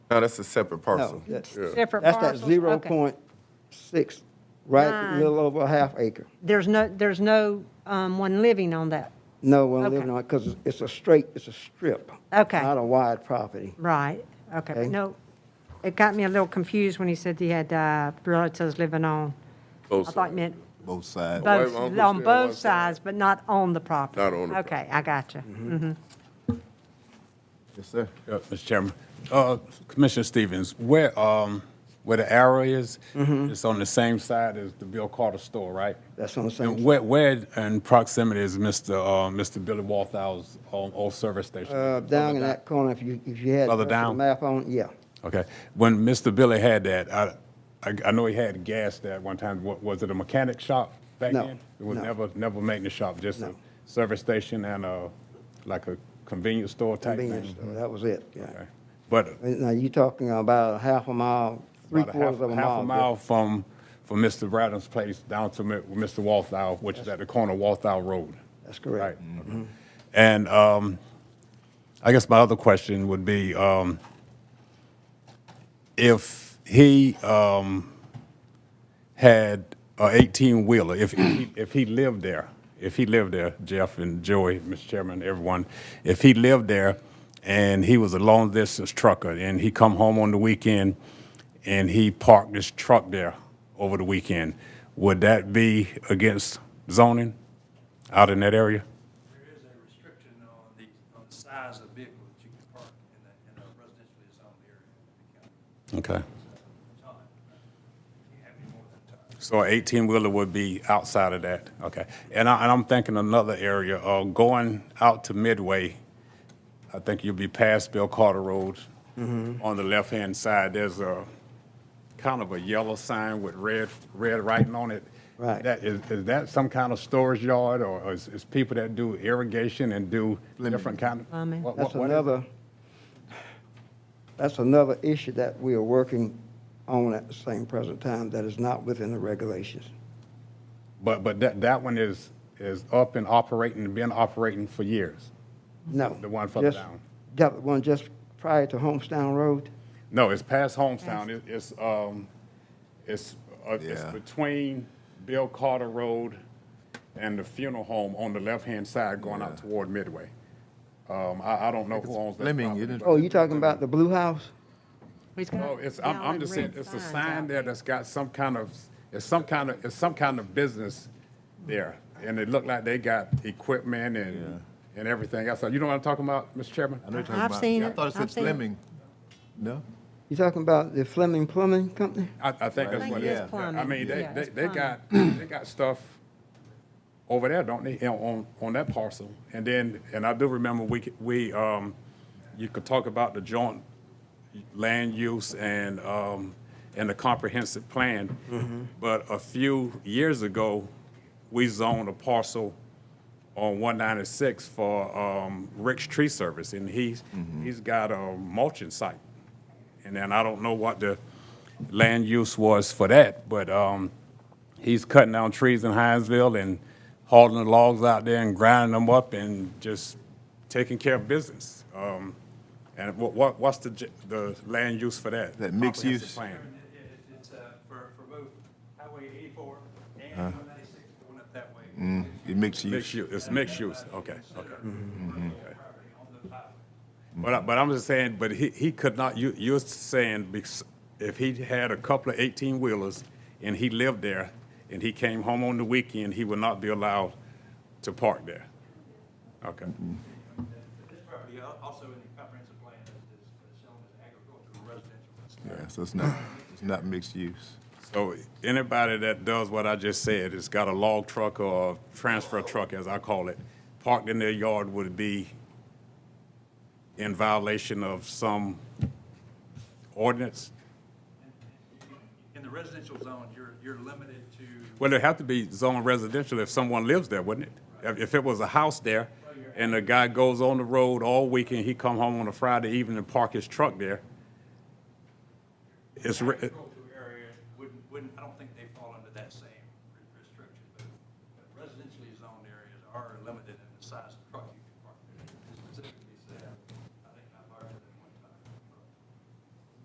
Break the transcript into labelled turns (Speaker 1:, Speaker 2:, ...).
Speaker 1: No, that's a separate parcel.
Speaker 2: that-
Speaker 1: Yeah.
Speaker 3: Separate
Speaker 2: That's that
Speaker 3: parcels?
Speaker 2: zero
Speaker 3: Okay.
Speaker 2: point six, right,
Speaker 3: Nine.
Speaker 2: little over a half acre.
Speaker 3: There's no, there's no um, one living on that,
Speaker 2: No, we're
Speaker 3: Okay.
Speaker 2: living on, because it's a straight, it's a strip.
Speaker 3: Okay.
Speaker 2: Not a wide property.
Speaker 3: right? Okay,
Speaker 2: Okay.
Speaker 3: no, it got me a little confused when he said he had uh, relatives living on, I
Speaker 1: Both
Speaker 3: thought
Speaker 1: sides.
Speaker 3: he meant
Speaker 4: both sides.
Speaker 1: Why
Speaker 3: both,
Speaker 1: my uncle's
Speaker 3: on
Speaker 1: staying on
Speaker 3: both
Speaker 1: one side.
Speaker 3: sides, but not on the property.
Speaker 1: Not on the
Speaker 3: Okay, I got you. Mhm.
Speaker 4: Yes, sir.
Speaker 5: Yeah, Mr. Chairman. Uh, Commissioner Stevens, where, um, where the arrow is, it's on the same side as the Bill Carter store, right?
Speaker 2: Mm-hmm. That's on the same
Speaker 5: And
Speaker 2: side.
Speaker 5: where, where in proximity is Mr. Uh, Mr. Billy Walthall's old, old service station?
Speaker 2: Uh, down in that corner, if you, if you had.
Speaker 5: Further
Speaker 2: the
Speaker 5: down.
Speaker 2: Map on, yeah.
Speaker 5: Okay. When Mr. Billy had that, I, I, I know he had gas there at one time. What, was it a mechanic shop back
Speaker 2: No,
Speaker 5: then? It was
Speaker 2: no.
Speaker 5: never, never a maintenance shop, just a
Speaker 2: No.
Speaker 5: service station and a, like a convenience store type thing?
Speaker 2: Convenience store, that was it, yeah.
Speaker 5: Okay. But
Speaker 2: Now, you talking about a half a mile, three
Speaker 5: about a half,
Speaker 2: quarters of a mile.
Speaker 5: half a mile from, from Mr. Braddon's place down to Mi- Mr. Walthall, which is at the corner of Walthall Road.
Speaker 2: That's correct.
Speaker 5: Right, okay. And um, I guess my other question would be, um, if he um, had a 18-wheeler, if, he- if he lived there, if he lived there, Jeff and Joey, Mr. Chairman, everyone, if he lived there and he was a long-distance trucker and he come home on the weekend and he parked his truck there over the weekend, would that be against zoning out in that area?
Speaker 6: There is a restriction on the, on the size of vehicle that you can park in a, in a residentially zoned area of the county.
Speaker 5: Okay.
Speaker 6: So, Time, you can't have any more than time.
Speaker 5: So an 18-wheeler would be outside of that, okay. And I, and I'm thinking another area, uh, going out to Midway, I think you'll be past Bill Carter Road.
Speaker 2: Mm-hmm.
Speaker 5: On the left-hand side, there's a, kind of a yellow sign with red, red writing on it.
Speaker 2: Right.
Speaker 5: That, is, is that some kind of storage yard, or is, is people that do irrigation and do different kind of?
Speaker 3: Plumbing.
Speaker 5: what-
Speaker 2: That's
Speaker 5: what- what is-
Speaker 2: another, that's another issue that we are working on at the same present time that is not within the regulations.
Speaker 5: But, but that, that one is, is up and operating, been operating for years.
Speaker 2: No.
Speaker 5: The one further
Speaker 2: Just-
Speaker 5: down.
Speaker 2: Yeah, the one just prior to Homestown Road.
Speaker 5: No, it's past Homestown. It- It's, um, it's, uh, it's
Speaker 4: Yeah.
Speaker 5: between Bill Carter Road and the funeral home on the left-hand side going out toward Midway. Um, I, I don't know who owns that
Speaker 4: Fleming,
Speaker 5: property.
Speaker 4: isn't it?
Speaker 5: but-
Speaker 2: Oh, you talking about the blue house?
Speaker 3: He's got
Speaker 5: No, it's, I'm, I'm
Speaker 3: yellow
Speaker 5: just
Speaker 3: and
Speaker 5: saying,
Speaker 3: red
Speaker 5: it's a
Speaker 3: signs
Speaker 5: sign
Speaker 3: out.
Speaker 5: there that's got some kind of, it's some kind of, it's some kind of business there. And it looked like they got equipment and, and everything else. You know what I'm talking about, Mr. Chairman?
Speaker 4: I know you're talking
Speaker 3: I've
Speaker 4: about-
Speaker 3: seen
Speaker 4: I
Speaker 3: it.
Speaker 4: thought it said
Speaker 3: I've seen it.
Speaker 4: Fleming. No?
Speaker 2: You talking about the Fleming Plumbing Company?
Speaker 5: I, I think that's
Speaker 3: think
Speaker 5: what
Speaker 4: it
Speaker 5: it
Speaker 4: is
Speaker 5: is. I
Speaker 3: plumbing.
Speaker 5: mean, they,
Speaker 3: Yeah,
Speaker 5: they,
Speaker 3: it's
Speaker 5: they got, they got stuff over there, don't they, you know, on, on that parcel? And then, and I do remember we, c- we, um, you could talk about the joint land use and, um, and the comprehensive plan. But a few years ago, we zoned a parcel on one ninety-six for, um, Rick's Tree Service, and he's, he's got a mulching site. And then I don't know what the land use was for that, but, um, he's cutting down trees in Hinesville and hauling the logs out there and grinding them up and just taking care of business. Um, and what, what, what's the, j- the land use for that?
Speaker 4: That mixed
Speaker 5: Comprehensive
Speaker 4: use?
Speaker 5: plan.
Speaker 6: Chairman, it- it- It's, uh, for, for both Highway eighty-four and one ninety-six going up that way.
Speaker 4: Uh-huh. Mm-hmm. It makes you. Mm-hmm.
Speaker 5: Mixed use, it's mixed use, okay, okay.
Speaker 6: Property on those highways.
Speaker 5: But, I- but I'm just saying, but he, he could not, you, you're saying because if he had a couple of eighteen wheelers and he lived there and he came home on the weekend, he would not be allowed to park there. Okay,
Speaker 6: This property al- also in the comprehensive plan is, is shown as agricultural residential.
Speaker 4: Yeah, so it's not, it's not mixed use.
Speaker 5: so anybody that does what I just said, has got a log truck or a transfer truck, as I call it, parked in their yard would be in violation of some ordinance?
Speaker 6: In the residential zone, you're, you're limited to,
Speaker 5: Well, it'd have to be zone residential if someone lives there, wouldn't it? If- If it was a house there, and the guy goes on the road all weekend, he come home on a Friday evening and park his truck there, it's, re-
Speaker 6: agricultural area wouldn't, wouldn't, I don't think they fall under that same